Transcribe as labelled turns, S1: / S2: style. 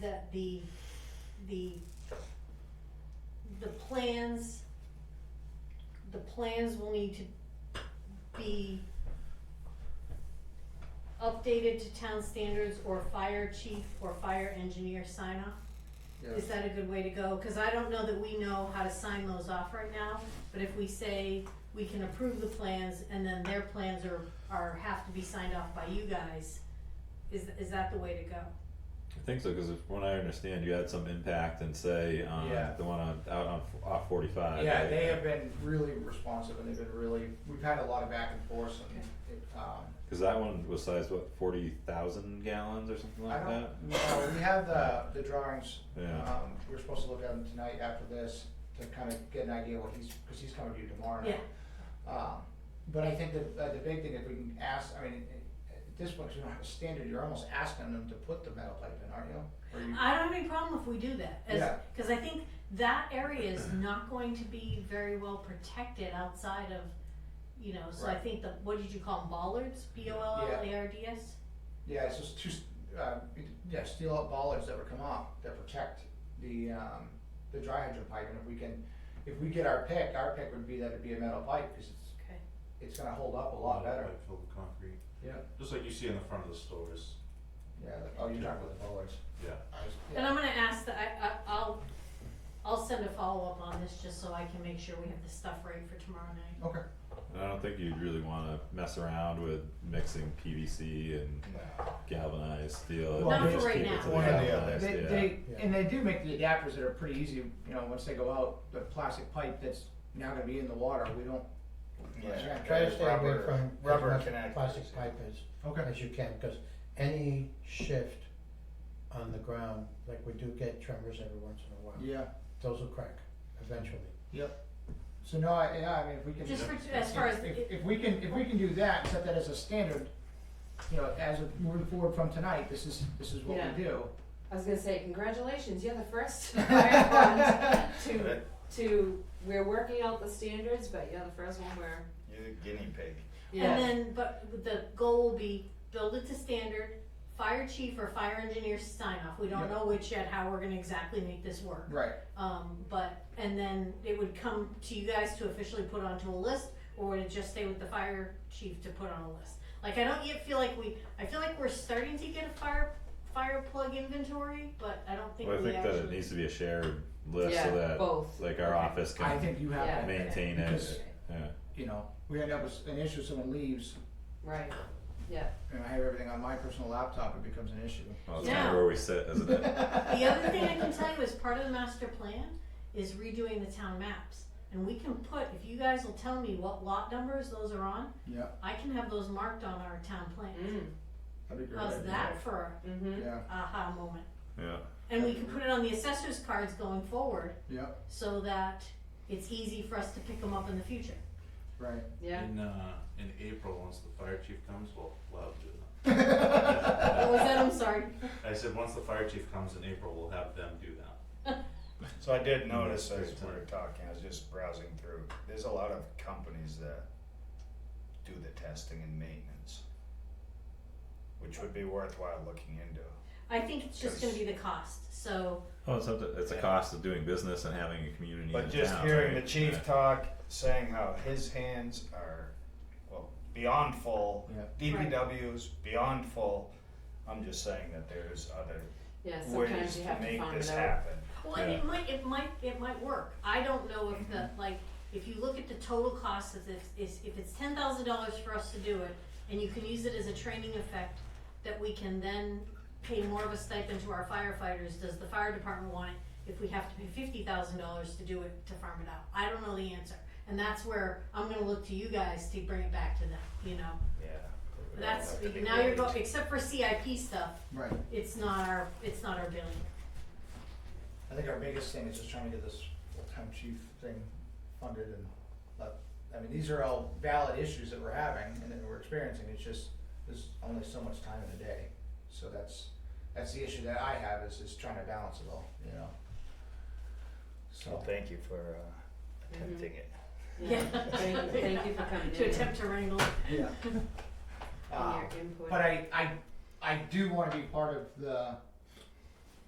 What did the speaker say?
S1: that the, the, the plans, the plans will need to be updated to town standards or fire chief or fire engineer sign off? Is that a good way to go? Cause I don't know that we know how to sign those off right now, but if we say we can approve the plans and then their plans are, are, have to be signed off by you guys, is, is that the way to go?
S2: I think so, cause if, when I understand, you had some impact and say on
S3: Yeah.
S2: the one on, out on, f- off forty-five.
S3: Yeah,
S2: right?
S3: they have been really responsive and they've been really, we've had a lot of back and forth and it, um,
S2: Cause that one was sized, what, forty thousand gallons or something
S3: I
S2: like
S3: don't,
S2: that?
S3: no, we have the, the drawings.
S2: Yeah.
S3: Um, we're supposed to look at them tonight after this to kind of get an idea what he's, cause he's coming to you tomorrow night.
S1: Yeah,
S3: Um, but I think the, uh, the big thing, if we can ask, I mean, at at this point, 'cause we don't have a standard, you're almost asking them to put the metal pipe in, aren't you? Or you?
S1: I don't have any problem if we do that, as,
S3: Yeah.
S1: cause I think that area is not going to be very well protected outside of, you know, so I
S3: Right.
S1: think the, what did you call them, bollards, B O L L A R D S?
S3: Yeah, it's just two, s- uh, it- yeah, steel up bollards that would come off that protect the, um, the dry hydrant pipe, and if we can, if we get our pick, our pick would be that it'd be a metal pipe, cause it's,
S1: Okay,
S3: it's gonna hold up a lot better.
S4: Like filled with concrete,
S3: Yeah.
S4: just like you see on the front of the stores,
S3: Yeah, like- oh, you're talking about the bollards.
S4: yeah.
S3: I was-
S1: and
S3: yeah.
S1: I'm gonna ask that, I, I, I'll, I'll send a follow-up on this just so I can make sure we have the stuff right for tomorrow night.
S3: Okay.
S2: And I don't think you'd really wanna mess around with mixing PVC and galvanized steel.
S3: Well,
S2: You
S3: Not
S2: just
S1: for right
S2: keep it to
S1: now.
S2: the
S4: One or the other.
S2: galvanized,
S3: They,
S2: yeah.
S3: they,
S4: Yeah.
S3: and they do make the adapters that are pretty easy, you know, once they go out, the plastic pipe that's now gonna be in the water, we don't.
S5: Yeah, try to stay away
S4: Rubber-
S5: from
S4: rubber
S5: as
S4: connectors,
S5: much plastic
S4: yeah.
S5: pipe as, as you can, cause any shift on the ground, like we do get tremors every once in a while.
S3: Yeah,
S5: Those will crack eventually.
S3: yep. So no, I, yeah, I mean, if we can.
S1: Just for, as far as,
S3: If, if we can, if we can do that, set that as a standard, you know, as of moving forward from tonight, this is, this is what
S6: Yeah.
S3: we do.
S6: I was gonna say, congratulations, you're the first fire fund to,
S7: Right.
S6: to, we're working out the standards, but you're the first one where,
S7: You're the guinea pig.
S1: And
S6: yeah,
S1: then, but the goal will be build it to standard, fire chief or fire engineer sign off, we don't
S3: Yeah.
S1: know which yet, how we're gonna exactly make this work.
S3: Right,
S1: Um, but, and then it would come to you guys to officially put onto a list, or would it just stay with the fire chief to put on a list? Like, I don't yet feel like we, I feel like we're starting to get a fire, fire plug inventory, but I don't think we
S2: Well, I
S1: actually.
S2: think that it needs to be a shared list so
S6: yeah,
S2: that,
S6: both.
S2: like, our office
S3: I
S2: can
S3: think you have,
S6: Yeah.
S3: that,
S2: maintain
S3: Because-
S2: it, yeah.
S3: you know, we end up with an issue, someone leaves,
S6: Right, yeah,
S3: and I have everything on my personal laptop, it becomes an issue.
S2: Well, Oh, it's kinda
S1: Now-
S2: where we sit, isn't it?
S1: The other thing I can tell you is part of the master plan is redoing the town maps. And we can put, if you guys will tell me what lot numbers those are on,
S3: Yeah,
S1: I can have those marked on our town plan.
S6: mm,
S3: that'd be great.
S1: How's that for
S6: mm-hmm,
S3: Yeah,
S1: a aha moment?
S2: Yeah,
S1: And we can put it on the assessor's cards going forward
S3: yeah,
S1: so that it's easy for us to pick them up in the future.
S3: right.
S6: yeah.
S4: In, uh, in April, once the fire chief comes, we'll, we'll have to do
S1: What was that? I'm sorry.
S4: that. I said, once the fire chief comes in April, we'll have them do that.
S7: So I
S3: Mm,
S7: did notice as
S4: Great
S7: we were
S4: time.
S7: talking, I was just browsing through, there's a lot of companies that do the testing and maintenance. Which would be worthwhile looking into.
S1: I think it's just gonna be the cost, so,
S2: well, it's, up to- it's a
S7: Yeah.
S2: cost of doing business and having a community in town,
S7: But just hearing the
S2: right?
S7: chief
S2: Yeah.
S7: talk, saying how his hands are, well, beyond full,
S3: Yeah.
S7: DPW's beyond full. I'm just saying that there's other
S6: Yeah,
S7: ways
S6: sometimes you
S7: to
S6: have to
S7: make
S6: find
S7: this
S6: it out.
S7: happen.
S1: well, and it
S2: Yeah.
S1: might, it might, it might work. I don't know if the, like, if you look at the total cost of this, is, if it's ten thousand dollars for us to do it, and you can use it as a training effect, that we can then pay more of a stipend to our firefighters, does the fire department want it? If we have to pay fifty thousand dollars to do it, to farm it out, I don't know the answer. And that's where I'm gonna look to you guys to bring it back to them, you know?
S7: Yeah. It would
S1: That's,
S7: have to be
S1: now you're
S7: great.
S1: going, except for CIP stuff,
S3: Right.
S1: it's not our, it's not our billing.
S3: I think our biggest thing is just trying to get this full-time chief thing funded and, but, I mean, these are all valid issues that we're having and that we're experiencing, it's just, there's only so much time in a day. So that's, that's the issue that I have is, is trying to balance it all, you know? So,
S7: Well, thank you for
S6: Mm-hmm.
S7: uh, attempting it.
S6: Yeah, thank, thank you for coming in.
S1: To attempt to wrangle. it.
S3: yeah.
S6: and
S3: Uh,
S7: Ah,
S6: your input.
S3: but I, I, I do wanna be part of the,